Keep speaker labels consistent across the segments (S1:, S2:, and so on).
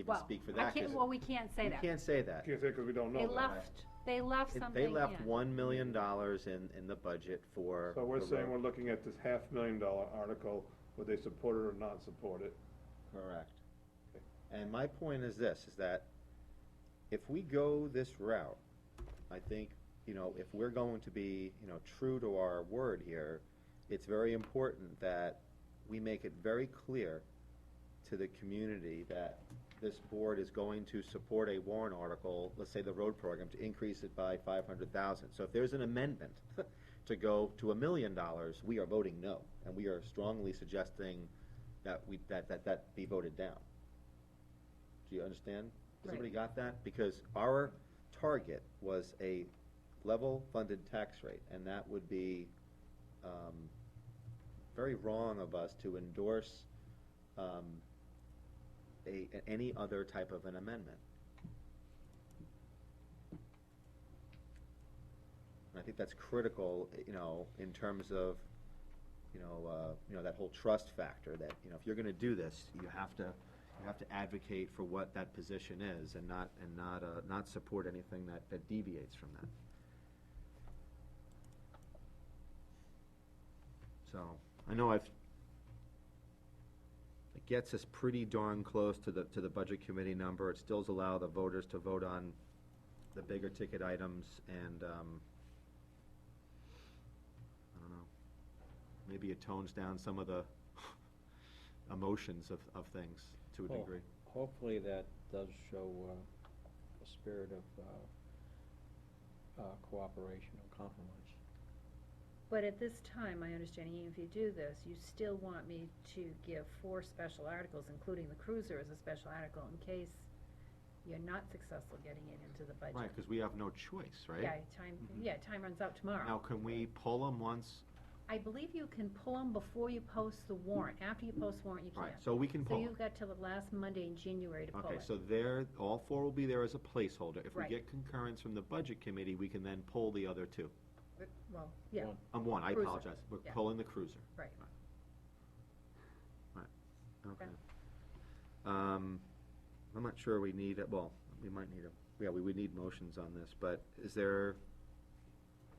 S1: even
S2: Well,
S1: speak for
S2: I
S1: that.
S2: can't,
S1: 'cause
S2: well, we can't say
S1: You
S2: that.
S1: can't say that.
S3: Can't say 'cause we don't know
S2: They
S3: that.
S2: left, they left
S1: It-
S2: something
S1: They
S2: in.
S1: left one million dollars in, in the budget for.
S3: So we're
S1: the
S3: saying
S1: road.
S3: we're looking at this half million dollar article, would they support it or not support it?
S1: Correct. And my point is this, is that if we go this route, I think, you know, if we're going to be, you know, true to our word here, it's very important that we make it very clear to the community that this board is going to support a warrant article, let's say the road program, to increase it by five hundred thousand. So if there's an amendment to go to a million dollars, we are voting no, and we are strongly suggesting that we, that, that, that be voted down. Do you understand? Has
S2: Right.
S1: everybody got that? Because our target was a level funded tax rate, and that would be, um, very wrong of us to endorse, um, a, a- any other type of an amendment. And I think that's critical, you know, in terms of, you know, uh, you know, that whole trust factor that, you know, if you're gonna do this, you have to, you have to advocate for what that position is and not, and not, uh, not support anything that, that deviates from that. So, I know I've, it gets us pretty darn close to the, to the budget committee number. It stills allow the voters to vote on the bigger ticket items and, um, I don't know. Maybe it tones down some of the emotions of, of things to a
S4: Well,
S1: degree.
S4: Hopefully that does show uh, a spirit of uh, uh, cooperation and compromise.
S5: But at this time, my understanding, even if you do this, you still want me to give four special articles, including the cruiser as a special article, in case you're not successful getting it into the budget.
S1: Right, because we have no choice,
S5: Yeah,
S1: right?
S5: time,
S1: Mhm.
S5: yeah, time runs out
S1: Now,
S5: tomorrow.
S1: can we pull them once?
S5: I believe you can pull them before you post the warrant. After you post the warrant, you
S1: All right,
S5: can't.
S1: so we can
S5: So
S1: pull 'em.
S5: you've got till the last Monday in January to pull
S1: Okay,
S5: it.
S1: so there, all four will be there as a placeholder. If we
S5: Right.
S1: get concurrence from the budget committee, we can then pull the other two.
S5: But- Well, yeah,
S4: One.
S1: Um, one, I
S5: Cruiser,
S1: apologize. We're
S5: yeah.
S1: pulling the cruiser.
S5: right.
S1: Right, okay.
S5: Okay.
S1: Um, I'm not sure we need, a- well, we might need a, yeah, we would need motions on this, but is there,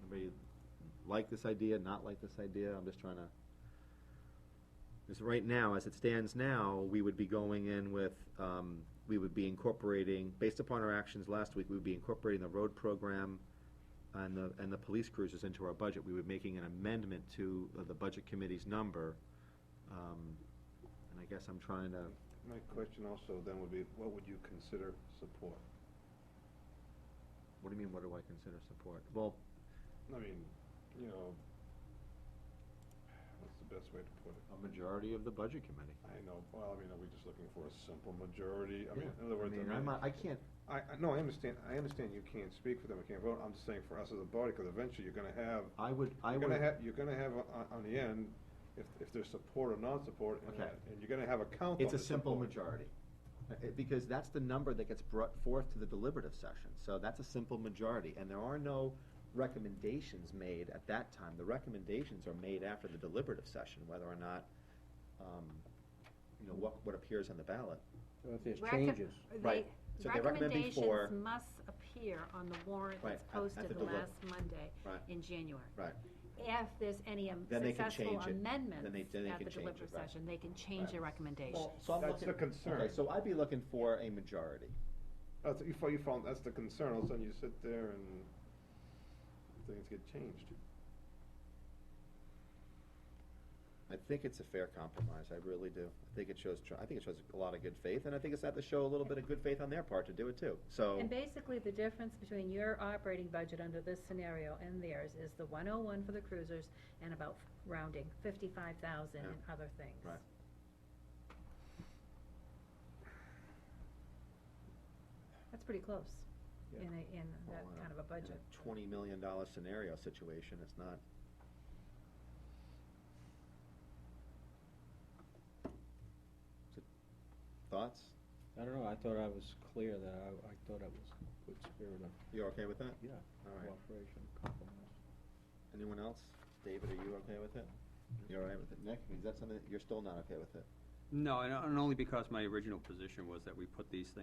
S1: anybody like this idea, not like this idea? I'm just trying to, because right now, as it stands now, we would be going in with, um, we would be incorporating, based upon our actions last week, we would be incorporating the road program and the, and the police cruisers into our budget. We would be making an amendment to uh, the budget committee's number. Um, and I guess I'm trying to,
S3: My question also then would be, what would you consider support?
S1: what do you mean, what do I consider support? Well,
S3: I mean, you know, what's the best way to put it?
S1: a majority of the budget committee.
S3: I know, well, I mean, are we just looking for a simple majority? I mean, in other words, I
S1: I
S3: mean-
S1: am not, I can't,
S3: I, I, no, I understand, I understand you can't speak for them, you can't vote, I'm just saying for us as a body, because eventually you're gonna have,
S1: I would, I
S3: you're
S1: would.
S3: gonna have, you're gonna have on, on the end, if, if there's support or non-support, and,
S1: Okay.
S3: that- and you're gonna have a count on
S1: It's a
S3: the
S1: simple
S3: support.
S1: majority, Uh, it- because that's the number that gets brought forth to the deliberative session, so that's a simple majority, and there are no recommendations made at that time, the recommendations are made after the deliberative session, whether or not, um, you know, what, what appears on the ballot.
S4: So If there's
S2: Recom-
S4: changes,
S2: they-
S1: Right. So they recommend before-
S2: Recommendations must appear on the warrant
S1: Right,
S2: that's
S1: at- at
S2: posted
S1: the
S2: the
S1: deliver-
S2: last Monday
S1: Right.
S2: in January.
S1: Right.
S2: If there's any um,
S1: Then they can
S2: successful
S1: change it. Then
S2: amendments
S1: they- then they
S2: at
S1: can
S2: the
S1: change it,
S2: deliberative
S1: right.
S2: session, they can change
S1: Right.
S2: their recommendations.
S1: Well, so I'm
S3: That's the
S1: looking-
S3: concern.
S1: Okay, so I'd be looking for a majority.
S3: That's, you found, you found, that's the concern, all of a sudden you sit there and things get changed.
S1: I think it's a fair compromise, I really do. I think it shows, tr- I think it shows a lot of good faith, and I think it's had to show a little bit of good faith on their part to do it too, so.
S5: And basically, the difference between your operating budget under this scenario and theirs is the one oh one for the cruisers and about rounding fifty-five thousand
S1: Yeah.
S5: and other things.
S1: Right.
S5: That's pretty close in
S4: Yeah.
S5: a, in that
S1: Well, uh,
S5: kind of a
S1: in
S5: budget.
S1: Twenty million dollar scenario situation, it's not. So, Thoughts?
S4: I don't know, I thought I was clear that I, I thought it was good spirit of,
S1: You okay with that?
S4: yeah,
S1: All right.
S4: cooperation and compromise.
S1: Anyone else? David, are you okay with it? You all right with it? Nick, is that something, that- you're still not okay with it?
S4: No, and and only because my original position was that we put these things